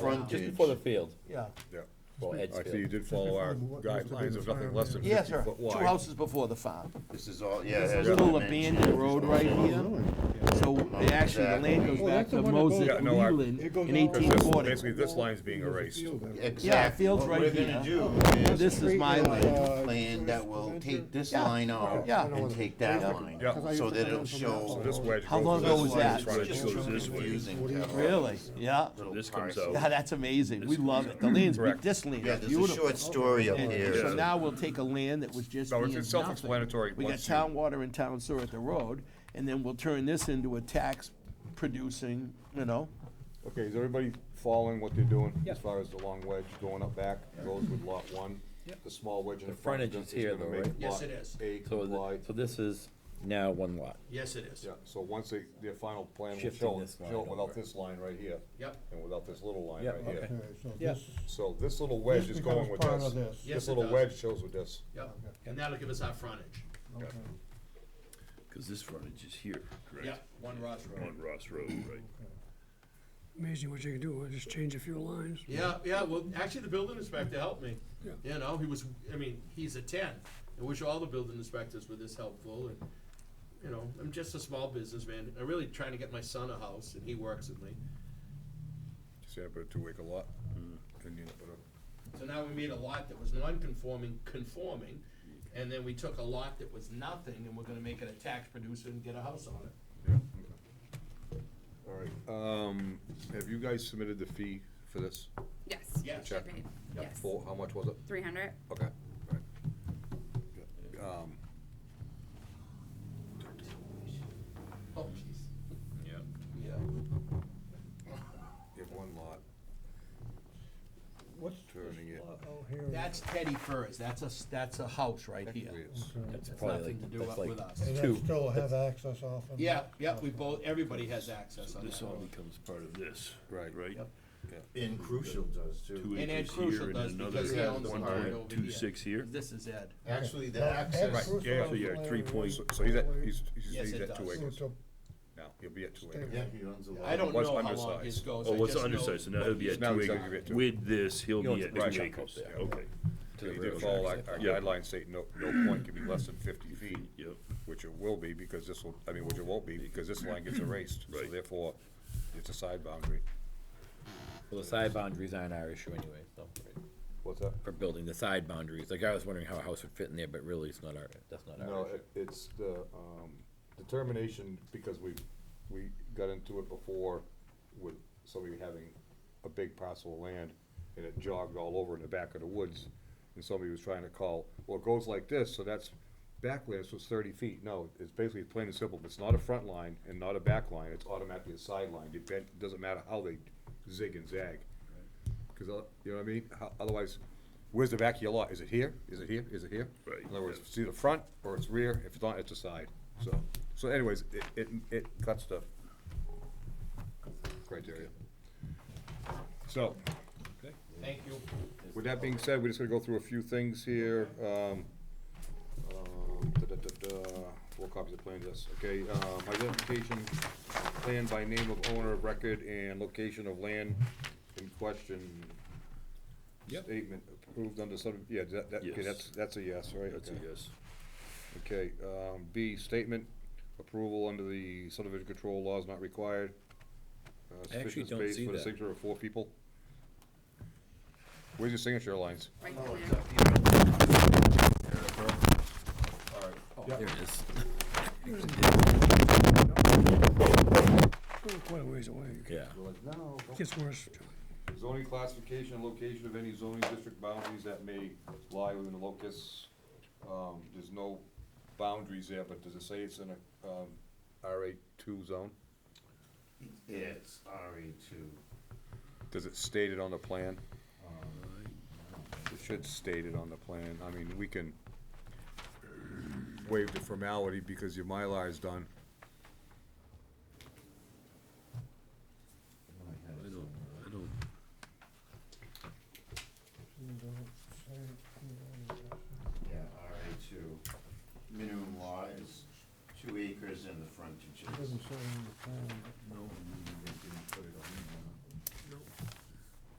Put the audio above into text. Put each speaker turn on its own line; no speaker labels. Just
frontage.
before the field,
Yeah,
Yeah.
or Ed's
I see you
field.
did follow our
Just before the-
guidelines of nothing less than
yes,
fifty
sir,
foot
two
wide.
houses before the farm.
This is all, yeah.
There's a
has
little
dimensions.
abandoned road right here, so they actually, the land goes
Oh,
back
that's
to
the one that goes-
Moses
Yeah, no, I-
Leland
It goes
in
all-
'Cause
eighteen
this-
forty.
Basically, this line's being erased.
Exactly.
Yeah,
Exactly.
field's
What
right
we're
here.
gonna do is
This is my
a
land.
plan that will take this
Yeah.
line out
Yeah.
and take that line,
Yeah. 'Cause I
so
used to
that
come
it'll
in from
show.
that
this
side.
way.
How long ago was that?
It's just confusing to have
Really, yeah,
little
This comes
parcels.
out.
Yeah, that's amazing, we love it, the land's, be-
Correct.
this land
Yeah,
is
there's a
beautiful.
short story up
And
here.
so now we'll take a land that was just
No,
being
it's-
nothing.
it's self-explanatory
We got
once you-
town water and town sewer at the road, and then we'll turn this into a tax producing, you know,
Okay, is everybody following what they're doing as far as the long wedge going up back, goes with lot one? The small wedge in
The
the front is
frontage is
gonna- is
here,
gonna
though,
make
right?
Yes,
lot
it is.
A
So,
comply.
th- so this is now one lot.
Yes, it is.
Yeah, so once they, their final plan will
Shifting
show, it-
this line
show it without
over.
this line right here.
Yep.
And without this little line
Yep,
right here.
Okay, so
Yeah.
this,
So this little wedge
This
is going
becomes
with
part of
this.
this.
Yes,
This
it
little
does.
wedge shows with this.
Yep, and that'll give us our frontage.
okay,
Because this frontage is here, correct?
Yep, one Ross Road.
On Ross Road, right?
Amazing what you can do, just change a few lines.
Yeah, yeah, well, actually, the building inspector helped me.
Yeah.
You know, he was, I mean, he's a ten. I wish all the building inspectors were this helpful and, you know, I'm just a small businessman. I'm really trying to get my son a house and he works with me.
Just had to put a two acre lot,
Mm-hmm.
and you put a,
So now we made a lot that was non-conforming, conforming, and then we took a lot that was nothing and we're gonna make it a tax producer and get a house on it.
All right, um, have you guys submitted the fee for this?
Yes.
Yes.
should be,
Yep.
Yes.
For, how much was it?
Three hundred.
Okay. Um,
Oh, jeez.
Yeah.
Yeah.
You have one lot,
what's
turning it.
lot out here?
That's Teddy Furs. That's a, s- that's a house right here.
Technically, it's-
Okay.
That's
It's
probably like,
nothing to do
that's
up
like
with us.
And
two.
that still have access off of?
Yeah, yeah, we both, everybody has access on
This
that
all
road.
becomes part of this,
Right.
right?
Yep.
and Crucial does too.
Two
And Ed
acres
Crucial
here and
does
another
because he owns the
one
part over
point two
here.
six here.
This is Ed.
Actually, the
Now, Ed
access,
Cruz
yeah,
owns
so
the
you're at
land
three
right
point-
So
away.
so he's at, he's, he's
Yes,
he's
it
at two
does.
So
acres
it's a-
now, he'll be at two
Stay
acres.
yeah, he owns a lot.
I don't
What's
know how long his
undersized?
goes.
Oh,
I
what's
just know-
Oh, undersized, so now he'll be at
Now
two
he's gonna be
acres.
at two.
With this, he'll
He owns
be
a
at
right.
two acres,
Yeah.
okay,
So You did follow our our
Yeah.
guidelines, say no, no point can be less than fifty feet,
yep.
which it will be, because this will, I mean, which it won't be, because this line gets erased, so
Right.
therefore, it's a side boundary.
Well, the side boundaries aren't our issue anyway, so,
What's that?
for building, the side boundaries, like, I was wondering how a house would fit in there, but really, it's not our, that's not our
No,
issue.
it- it's the, um, determination, because we, we got into it before with somebody having a big parcel of land, and it jogged all over in the back of the woods, and somebody was trying to call, well, it goes like this, so that's backland, so it's thirty feet, no, it's basically plain and simple, it's not a front line and not a back line, it's automatically a sideline, depend, doesn't matter how they zig and zag. Cause, uh, you know what I mean, Ho- otherwise, where's the back of your lot, is it here, is it here, is it here?
Right,
In other words,
yeah.
it's either front or it's rear, if it's not, it's a side, so, so anyways, it, it, it cuts the criteria. So,
Thank you.
with that being said, we're just gonna go through a few things here, um, um, da-da-da-da, four copies of plan, yes, okay, um, identification, plan by name of owner of record and location of land in question. Statement approved under sub, yeah, that, that, okay,
Yes.
that's, that's a yes, right?
That's a
Okay.
yes.
Okay, um, B, statement, approval under the subdivision control laws not required. Uh,
I actually
sufficient
don't
space
see
for the
that.
signature of four people. Where's your signature lines?
Right
No,
there.
it's up here. All right.
There it is.
Oh, Quite a ways away.
Yeah.
No.
Gets worse.
Zoning classification and location of any zoning district boundaries that may lie within the locus. Um, there's no boundaries there, but does it say it's in a, um, RA two zone?
It's RE two.
Does it state it on the plan? It should state it on the plan, I mean, we can waive the formality because your Mylar is done.
I don't, I don't,
You don't say it, you don't.
Yeah, RA two. Minimum lot is two acres and the frontage
It
is.
doesn't say on the plan, but